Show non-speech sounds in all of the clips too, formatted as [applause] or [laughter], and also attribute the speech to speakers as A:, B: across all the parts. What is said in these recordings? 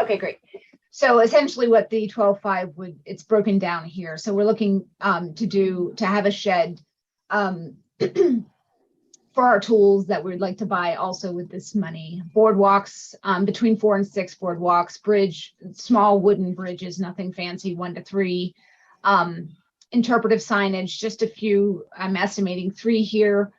A: Okay, great. So essentially what the twelve five would, it's broken down here. So we're looking um to do, to have a shed um [clears throat] for our tools that we'd like to buy also with this money. Boardwalks, um between four and six boardwalks, bridge, small wooden bridges, nothing fancy, one to three. Um interpretive signage, just a few, I'm estimating three here,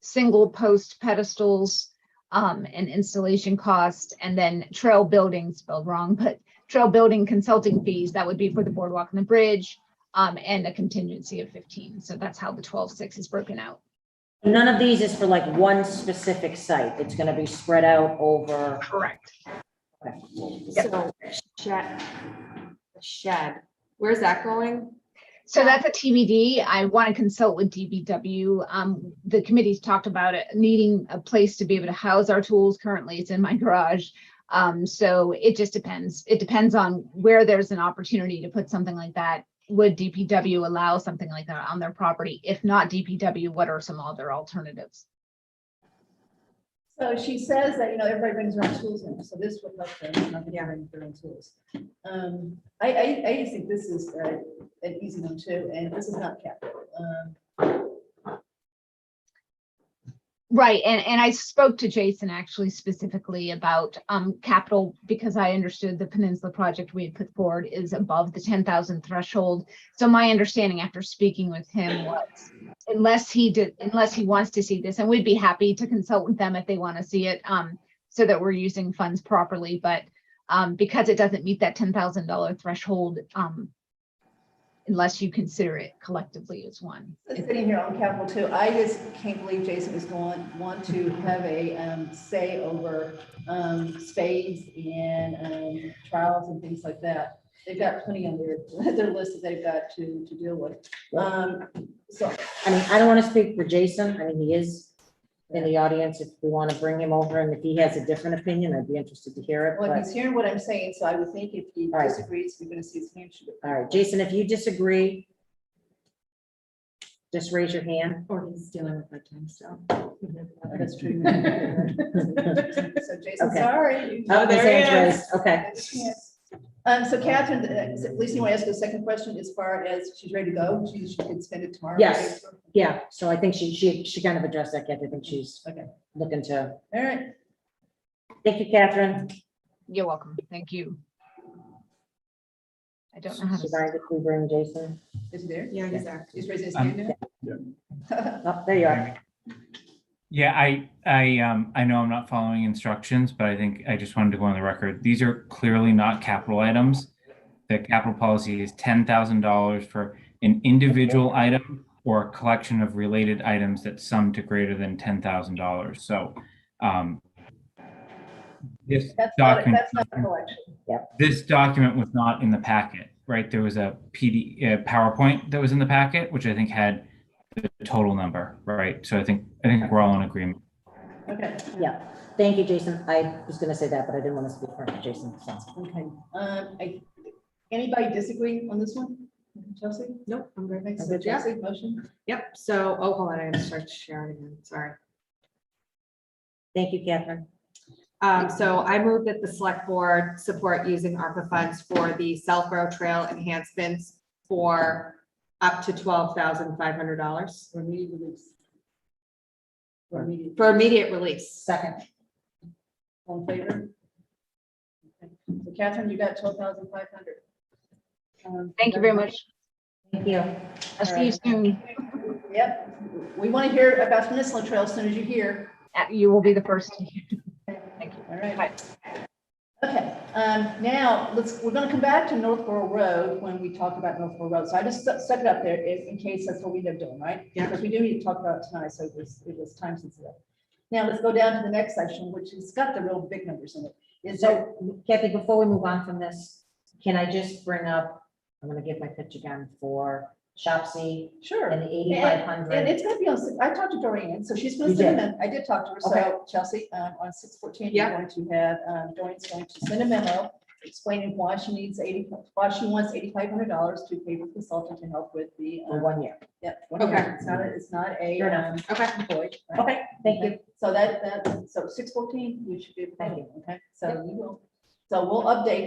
A: single post pedestals um and installation cost, and then trail building spelled wrong, but trail building consulting fees, that would be for the boardwalk and the bridge, um, and a contingency of fifteen. So that's how the twelve six is broken out.
B: None of these is for like one specific site. It's gonna be spread out over,
A: Correct. Yep.
C: So shed, the shed, where's that going?
A: So that's a TBD. I want to consult with DBW. Um, the committee's talked about it, needing a place to be able to house our tools. Currently, it's in my garage. Um, so it just depends. It depends on where there's an opportunity to put something like that. Would DPW allow something like that on their property? If not DPW, what are some other alternatives?
D: So she says that, you know, everybody brings their own tools in, so this would help them, not to bring their own tools. Um, I, I, I just think this is uh, an easy one too, and this is not capital. Um,
A: Right, and, and I spoke to Jason actually specifically about um capital because I understood the Peninsula project we had put forward is above the ten thousand threshold. So my understanding after speaking with him was unless he did, unless he wants to see this, and we'd be happy to consult with them if they want to see it, um, so that we're using funds properly, but um, because it doesn't meet that ten thousand dollar threshold, um, unless you consider it collectively as one.
D: Sitting here on capital too, I just can't believe Jason is going, want to have a, um, say over, um, spades and, um, trials and things like that. They've got plenty on their, [laughs] their list that they've got to, to deal with. Um, so
B: I mean, I don't wanna speak for Jason. I mean, he is in the audience. If we wanna bring him over and if he has a different opinion, I'd be interested to hear it.
D: Well,
B: but-
D: he's hearing what I'm saying, so I would think if he
B: All right.
D: disagrees, we're gonna see his hand shoot up.
B: All right, Jason, if you disagree, just raise your hand.
E: Or he's dealing with my time, so.
D: That's true. [laughs] So Jason,
B: Okay.
D: sorry. you-
B: Oh, his
E: there he
B: hand's raised. Okay,
D: Um, so Catherine, uh, at least you want to ask a second question as far as she's ready to go, she, she can spend it tomorrow.
B: Yes. yeah, so I think she, she, she kind of addressed that, Kathy. I think she's
D: Okay.
B: looking to,
D: All right,
B: thank you, Catherine.
A: You're welcome. Thank you. I don't know how
E: Uh-huh.
B: Do
A: to.
B: you mind if we bring Jason?
D: is he there?
E: Yeah, he's there.
D: He's raising his hand now?
B: Oh, there you are.
F: Yeah, I, I, um, I know I'm not following instructions, but I think I just wanted to go on the record. These are clearly not capital items. The capital policy is ten thousand dollars for an individual item or a collection of related items that sum to greater than ten thousand dollars, so, um, this
D: [laughs] That's not,
F: document,
D: that's not a collection.
F: this document was not in the packet, right? There was a PD, uh, PowerPoint that was in the packet, which I think had the total number, right? So I think, I think we're all in agreement.
D: Okay,
B: Yeah, thank you, Jason. I was gonna say that, but I didn't want to speak for Jason. so.
D: okay. Um, I, anybody disagree on this one? Chelsea?
E: Nope, I'm good.
D: Okay, so
E: Yeah.
D: Chelsea, motion?
E: Yep, so, oh, hold on, I gotta start sharing again, sorry.
B: Thank you, Catherine.
E: Um, so I move that the select board support using ARPA funds for the South Row Trail enhancements for up to twelve thousand five hundred dollars
D: Or immediate release? Or immediate-
E: for immediate release.
D: Second. All in favor? Okay. So Catherine, you got twelve thousand five Um, hundred.
A: Thank you very much.
B: Thank you.
A: I'll see you soon.
D: Yep, we want to hear about Peninsula Trail as soon as you hear.
A: Uh, You will be the first. [laughs] to hear.
D: All right. Okay, um, now, let's, we're gonna come back to Northborough Road when we talk about Northborough Road. So I just stuck stuck it up there in, in case that's what we end up doing, right?
E: Yeah.
D: Because we do need to talk about it tonight, so it was, it was time sensitive. Now, let's go down to the next section, which has got the real big numbers in it. Is there,
B: So Kathy, before we move on from this, can I just bring up, I'm gonna give my pitch again for Shopsy
D: sure.
B: and the eighty-five
D: And
B: hundred.
D: it's gonna be on, six- I talked to Dorian, so she's gonna
B: You
D: send
B: did.
D: them, I did talk to her,
B: Okay.
D: so Chelsea, um, on six fourteen, you're
E: Yeah.
D: going to have, um, Dorian's going to send a memo explaining why she needs eighty, why she wants eighty-five hundred dollars to pay the consultant to help with the,
B: For
D: um,
B: one year.
D: yeah. one
E: Okay.
D: year. It's not, a- it's not a,
B: Fair
D: um,
B: enough.
E: Okay,
D: employee. right?
B: Okay, thank you.
D: So that, that's so six fourteen, you should be,
B: Thank
D: okay, so you will, so we'll update